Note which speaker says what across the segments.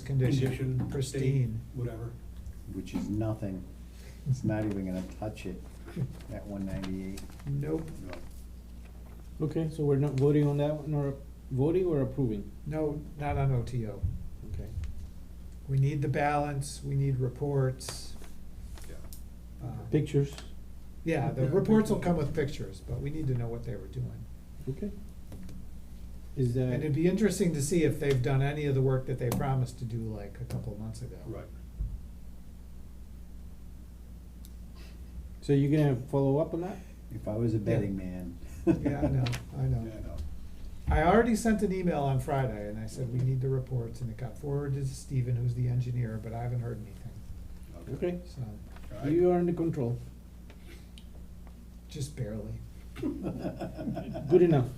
Speaker 1: condition,
Speaker 2: Condition,
Speaker 1: pristine.
Speaker 2: date, Whatever.
Speaker 3: which is nothing. It's not even gonna touch it at one ninety-eight.
Speaker 1: Nope,
Speaker 3: No.
Speaker 4: Okay, so we're not voting on that one, or voting or approving?
Speaker 1: no, not on OTO.
Speaker 4: Okay.
Speaker 1: We need the balance, we need reports.
Speaker 2: Yeah.
Speaker 1: um,
Speaker 4: Pictures,
Speaker 1: Yeah, the
Speaker 2: Yeah,
Speaker 1: reports will
Speaker 2: pictures.
Speaker 1: come with pictures, but we need to know what they were doing.
Speaker 4: okay. Is
Speaker 1: And it'd
Speaker 4: that,
Speaker 1: be interesting to see if they've done any of the work that they promised to do like a couple of months ago.
Speaker 2: Right.
Speaker 4: so you're gonna follow up on that?
Speaker 3: If I was a betting man.
Speaker 1: Yeah, I know, I
Speaker 2: Yeah,
Speaker 1: know.
Speaker 2: I know.
Speaker 1: I already sent an email on Friday and I said, we need the reports, and it got forwarded to Stephen, who's the engineer, but I haven't heard anything,
Speaker 4: Okay,
Speaker 1: so,
Speaker 2: All right.
Speaker 4: you are under control,
Speaker 1: just barely.
Speaker 4: good enough.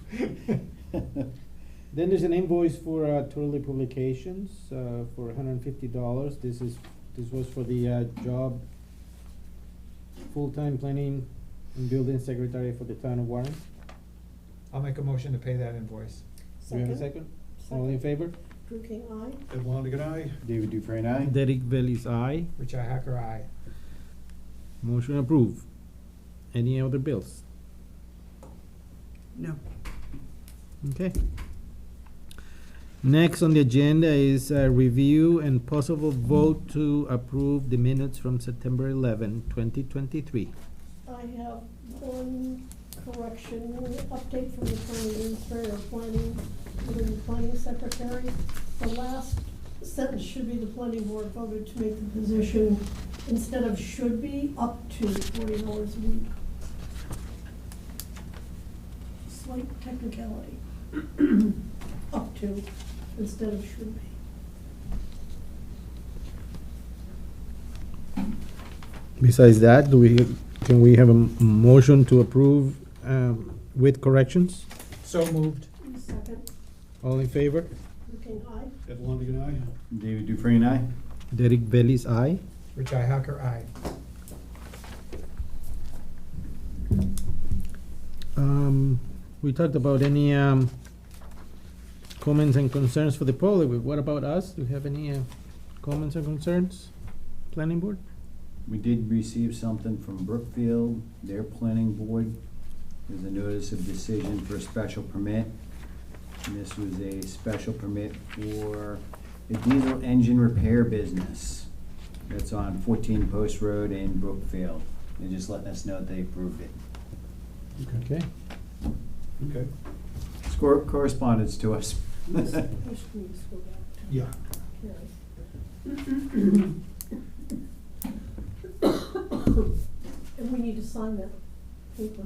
Speaker 4: Then there's an invoice for uh, Turley Publications uh, for hundred and fifty dollars. This is, this was for the uh, job, full-time planning and building secretary for the town of Warren.
Speaker 1: I'll make a motion to pay that invoice.
Speaker 4: Do you have a second? All in favor?
Speaker 5: Drew King, aye.
Speaker 2: Ed Longigan, aye.
Speaker 3: David Dufresne, aye?
Speaker 4: Derek Bailey's aye.
Speaker 1: Richi Hacker, aye.
Speaker 4: Motion approved. Any other bills?
Speaker 6: No.
Speaker 4: Okay. Next on the agenda is uh review and possible vote to approve the minutes from September 11, 2023.
Speaker 5: I have one correction, update from the planning administrator, planning, within the planning secretary. The last sentence should be the planning board voted to make the position, instead of should be, up to forty hours a week. Slight technicality. Up to, instead of should be.
Speaker 4: Besides that, do we, can we have a m- motion to approve um, with corrections?
Speaker 1: So moved.
Speaker 5: Second,
Speaker 4: All in favor?
Speaker 5: Drew King, aye.
Speaker 2: Ed Longigan, aye.
Speaker 3: David Dufresne, aye?
Speaker 4: Derek Bailey's aye.
Speaker 1: Richi Hacker, aye.
Speaker 4: Um, We talked about any um, comments and concerns for the public, but what about us? Do you have any uh, comments or concerns? Planning board?
Speaker 3: We did receive something from Brookfield, their planning board. There's a notice of decision for a special permit. And this was a special permit for a diesel engine repair business that's on fourteen Post Road in Brookfield. They're just letting us know they approved it.
Speaker 4: Okay.
Speaker 2: Okay.
Speaker 3: Scor- Correspondence to us.
Speaker 5: Miss- Miss Green, scroll down.
Speaker 2: Yeah.
Speaker 5: Carrie. And we need to sign that paper,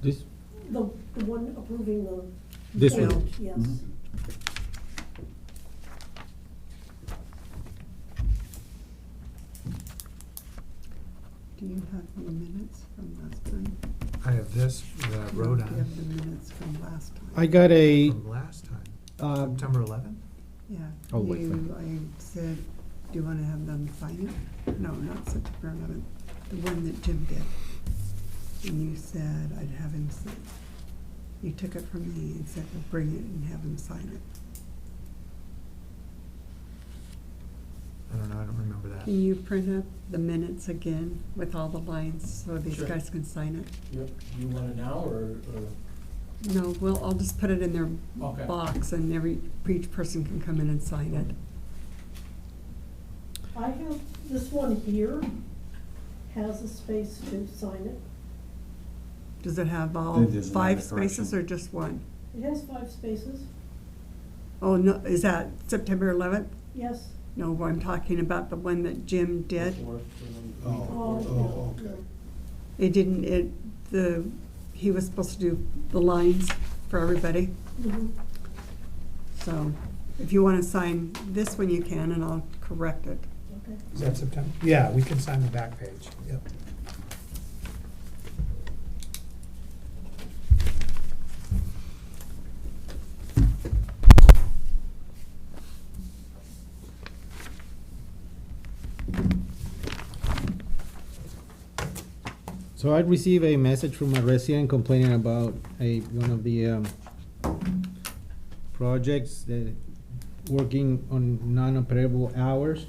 Speaker 4: This,
Speaker 5: the, the one approving the.
Speaker 4: This one.
Speaker 5: vote, Yes.
Speaker 6: Do you have the minutes from last time?
Speaker 1: I have this, that I wrote
Speaker 6: Do you have
Speaker 1: on
Speaker 6: the minutes from last time?
Speaker 4: I got a,
Speaker 1: from last time,
Speaker 4: uh,
Speaker 1: September eleventh?
Speaker 6: Yeah.
Speaker 4: I'll wait for
Speaker 6: You, I said, do you wanna have them sign it? No, not September eleventh, the one that Jim did. And you said I'd have him sign. it. You took it from me and said, well, bring it and have him sign it.
Speaker 1: I don't know, I don't remember that.
Speaker 6: Can you print up the minutes again with all the lines so these
Speaker 7: Sure.
Speaker 6: guys can sign it?
Speaker 7: Yep, do you want it now, or, or,
Speaker 6: No, well, I'll just put it in their
Speaker 7: Okay.
Speaker 6: box and every, each person can come in and sign it.
Speaker 5: I have, this one here has a space to sign it.
Speaker 6: Does it have all
Speaker 3: That is
Speaker 6: five
Speaker 3: another correction.
Speaker 6: spaces or just one?
Speaker 5: It has five spaces,
Speaker 6: Oh, no, is that September eleventh?
Speaker 5: yes.
Speaker 6: No, I'm talking about the one that Jim did.
Speaker 7: before, or?
Speaker 2: Oh,
Speaker 5: Oh,
Speaker 2: oh,
Speaker 5: no,
Speaker 2: okay.
Speaker 6: It didn't, it, the, he was supposed to do the lines for everybody.
Speaker 5: no. Mhm.
Speaker 6: So if you wanna sign this one, you can, and I'll correct it.
Speaker 5: Okay.
Speaker 1: Is that September? Yeah, we can sign the back page, yep.
Speaker 4: so I'd received a message from a resident complaining about a, one of the um, projects that working on non-operable hours.